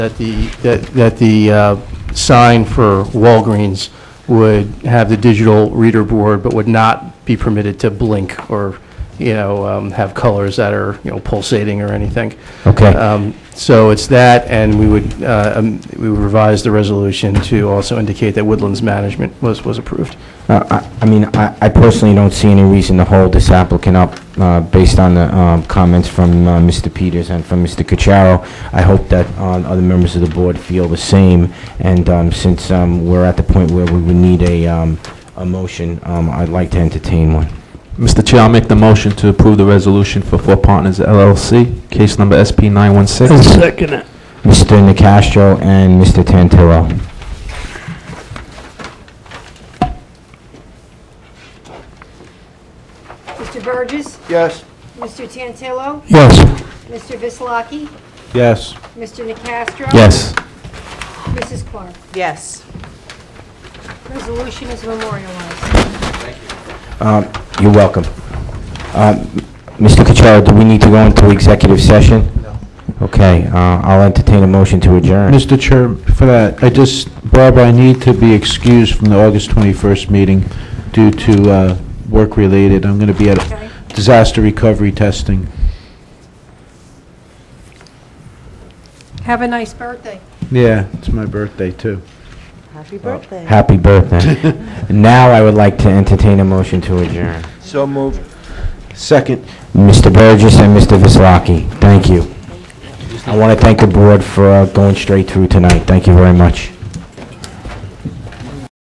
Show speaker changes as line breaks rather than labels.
that the, that that the uh, sign for Walgreens would have the digital reader board, but would not be permitted to blink or, you know, um, have colors that are, you know, pulsating or anything.
Okay.
Um, So it's that, and we would, uh, um, we would revise the resolution to also indicate that Woodlands Management was, was approved.
Uh, I I mean, I I personally don't see any reason to hold this applicant up uh, based on the um, comments from uh, Mr. Peters and from Mr. Cucharo. I hope that um, other members of the board feel the same, and um, since um, we're at the point where we would need a um, a motion, um, I'd like to entertain one.
Mr. Chair, I'll make the motion to approve the resolution for Four Partners LLC, case number SP
I'll
916.
second it.
Mr. Nacastro and Mr. Tantillo.
Mr. Burgess,
Yes.
Mr. Tantillo,
Yes.
Mr. Vislaki,
Yes.
Mr. Nacastro.
Yes.
Mrs. Clark.
yes,
Resolution is memorialized.
You're welcome. Um, Mr. Cucharo, do we need to go into executive session? No. Okay, uh, I'll entertain a motion to adjourn.
Mr. Chair, for that, I just, Barbara, I need to be excused from the August 21st meeting due to uh, work-related. I'm going to be
Okay.
at disaster recovery testing.
Have a nice birthday.
Yeah, it's my birthday, too.
happy birthday.
Happy birthday. Now I would like to entertain a motion to adjourn.
So moved. Second.
Mr. Burgess and Mr. Vislaki, thank you. I want to thank the board for uh, going straight through tonight. Thank you very much.